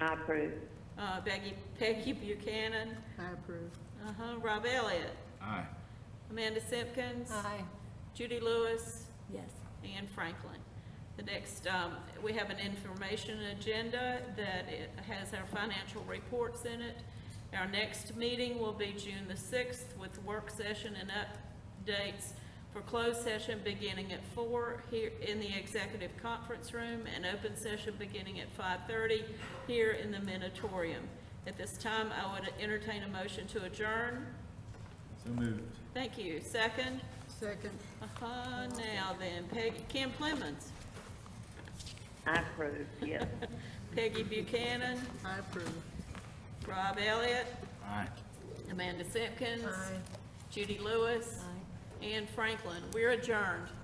I approve. Uh, Peggy, Peggy Buchanan, I approve. uh-huh, Rob Elliott, Aye. Amanda Simpkins. Judy Lewis. Yes. And Franklin. The next, um, we have an information agenda that it has our financial reports in it. Our next meeting will be June the sixth with work session and updates for closed session beginning at four here in the executive conference room and open session beginning at five thirty here in the Minotaurium. At this time, I would entertain a motion to adjourn. So moved. Thank you. Second? Second. Uh-huh, now then, Peggy, Kim Clemmons, I approve, yes. Peggy Buchanan, I approve. Rob Elliott, Aye. Amanda Simpkins, Judy Lewis, and Franklin. We're adjourned.